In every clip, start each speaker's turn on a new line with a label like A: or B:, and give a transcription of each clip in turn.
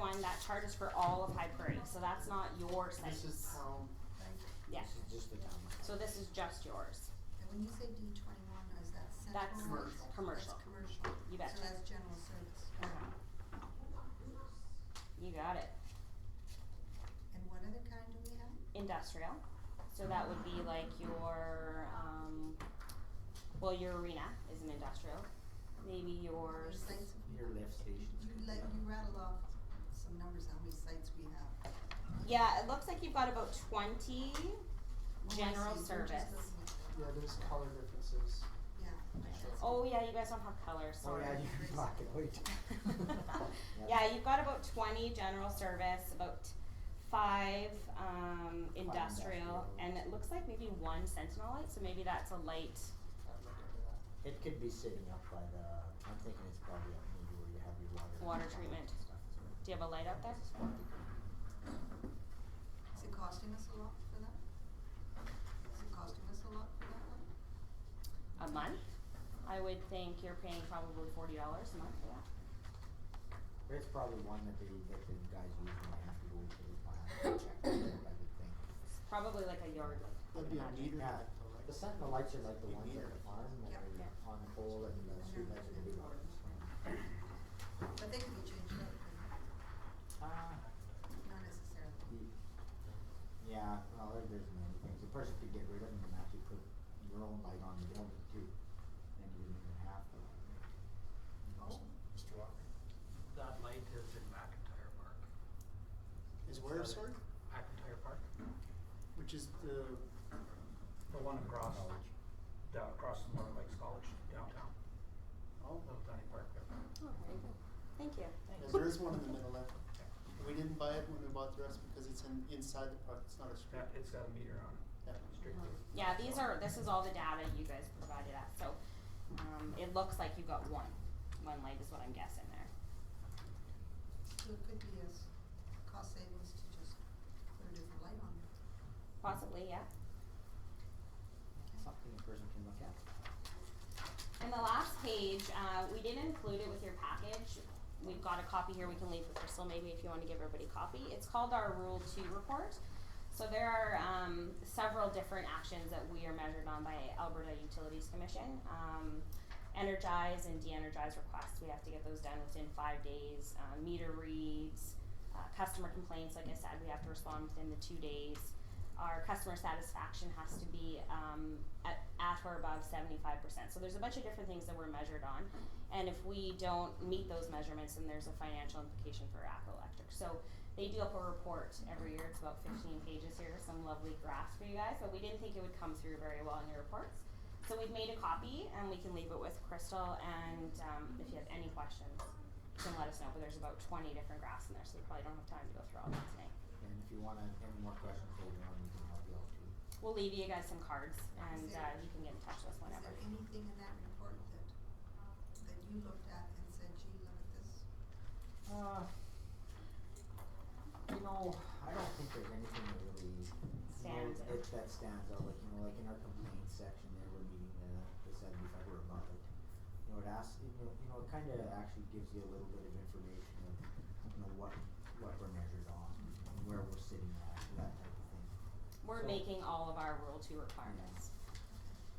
A: line, that chart is for all of High Prairie, so that's not your site.
B: This is town,
A: Yeah,
B: this is just the town.
A: so this is just yours.
C: And when you say D twenty-one, is that central?
A: That's
B: Commercial.
A: commercial.
C: That's commercial.
A: You betcha.
C: So that's general service.
A: Okay. You got it.
C: And what other kind do we have?
A: Industrial, so that would be like your, um, well, your arena is an industrial. Maybe your,
C: How many sites
A: s-
C: have we
B: Your
C: got?
B: lift stations.
C: You let, you rattle off some numbers, how many sites we have.
A: yeah, it looks like you've got about twenty
C: Oh, I
A: general
C: see, we're just
A: service.
C: looking at the-
D: Yeah, there's color differences.
C: Yeah. that's-
A: Oh, yeah, you guys don't have colors,
B: Oh,
A: sorry.
B: yeah, you can block it, wait.
A: Yeah, you've got about twenty general service, about five, um, industrial,
B: industrial.
A: and it looks like maybe one sentinel light, so maybe that's a light.
B: It could be sitting up by the, I'm thinking it's probably up maybe where you have your water. and
A: Water
B: stuff
A: treatment.
B: and stuff as well.
A: Do you have a light out there?
C: Is it costing us a lot for that? Is it costing us a lot for that one?
A: A month? I would think you're paying probably forty dollars a month for that.
B: It's probably one that they, that the guys use when they have to go to the plant and check it out, I would think.
A: It's probably like a yard light. I would
D: That'd
A: imagine.
D: be a meter
B: Yeah.
D: light though, right?
B: The sentinel lights are like the
D: You
B: ones
D: meter
B: at the
D: it.
B: farm, that
C: Yep.
B: are
A: Yeah.
B: on the pole and the street lights are the big ones.
C: But they could be changed out, couldn't
B: Ah.
C: they? not necessarily.
B: Yeah, well, there- there's many things. The person could get rid of them and actually put your own light on the building too. Then you wouldn't even have to.
C: Oh.
E: Mr. Walker? That light is in McIntyre Park.
D: Is where,
E: Is that
D: sorry?
E: it? McIntyre Park?
D: Which is the,
E: The one across, down across from North Lakes College downtown,
D: oh,
E: little tiny park there.
A: Oh, very good. Thank you.
D: yeah, there is one in the middle left. We didn't buy it when we bought the rest because it's in, inside the product, it's not a strip.
E: That, it's got a meter on it,
D: Yeah.
E: straight through.
A: Yeah, these are, this is all the data you guys provided us, so, um, it looks like you got one, one light is what I'm guessing there.
C: So it could be as cost savings to just put a different light on it.
A: Possibly, yeah.
B: Something a person can look at.
A: And the last page, uh, we didn't include it with your package. We've got a copy here we can leave with Crystal maybe if you want to give everybody a copy. It's called our Rule Two Report. So there are um, several different actions that we are measured on by Alberta Utilities Commission. Um, energize and de-energize requests, we have to get those done within five days. Uh, meter reads, uh, customer complaints, like I said, we have to respond within the two days. Our customer satisfaction has to be um, at, at or above 75%. So there's a bunch of different things that we're measured on. And if we don't meet those measurements, then there's a financial implication for ACCO Electric. So they do up a report every year. It's about 15 pages here, some lovely graphs for you guys, but we didn't think it would come through very well in your reports. So we've made a copy and we can leave it with Crystal. And um, if you have any questions, you can let us know. But there's about 20 different graphs in there, so we probably don't have time to go through all that tonight.
B: And if you wanna, any more questions later on, we can help you out too.
A: We'll leave you guys some cards and uh, you can get in touch with us
C: Is
A: whenever.
C: there anything in that report that, that you looked at and said, gee, look at this?
B: Uh, you know, I don't think there's anything that really you know,
A: Stands out.
B: that- that stands out. Like you know, like in our complaints section, there we're meeting the the seventy five or above it. You know, it asks you know, you know it kind of actually gives you a little bit of information of you know what what we're measured on, and where we're sitting at, that type of thing.
A: We're
B: So-
A: making all of our Rule 2 requirements.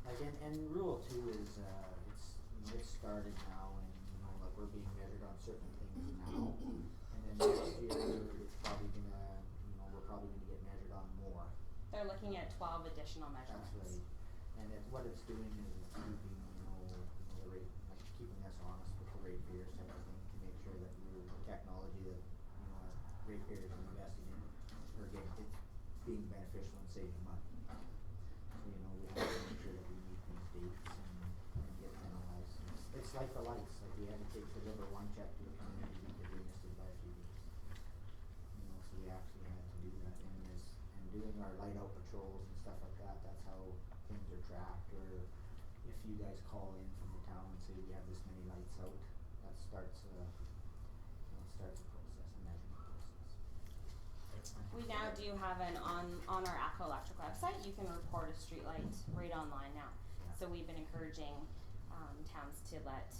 B: Like and and rule two is uh it's you know, it's started now and you know like we're being measured on certain things now and then next year it's probably gonna you know we're probably gonna get measured on more.
A: They're looking at 12 additional
B: That's
A: measurements.
B: right. And it, what it's doing is it's keeping you know you know, the rate like keeping us honest with the rate payers type of thing to make sure that we're the technology that you know as rate payers are investing in are getting it's being beneficial and saving money. So, you know, we have to make sure that we meet these dates and, and get penalized. It's- It's like the lights, like we had to take, deliver one check to the community because they missed it by a few weeks. You know, so we actually had to do that and this, and doing our light out patrols and stuff like that, that's how things are tracked or if you guys call in from the town and say we have this many lights out, that starts a, you know, starts a process, a measurement process.
A: We now do have an on, on our ACCO Electric website, you can report a streetlight right online now.
B: Yeah.
A: So we've been encouraging, um, towns to let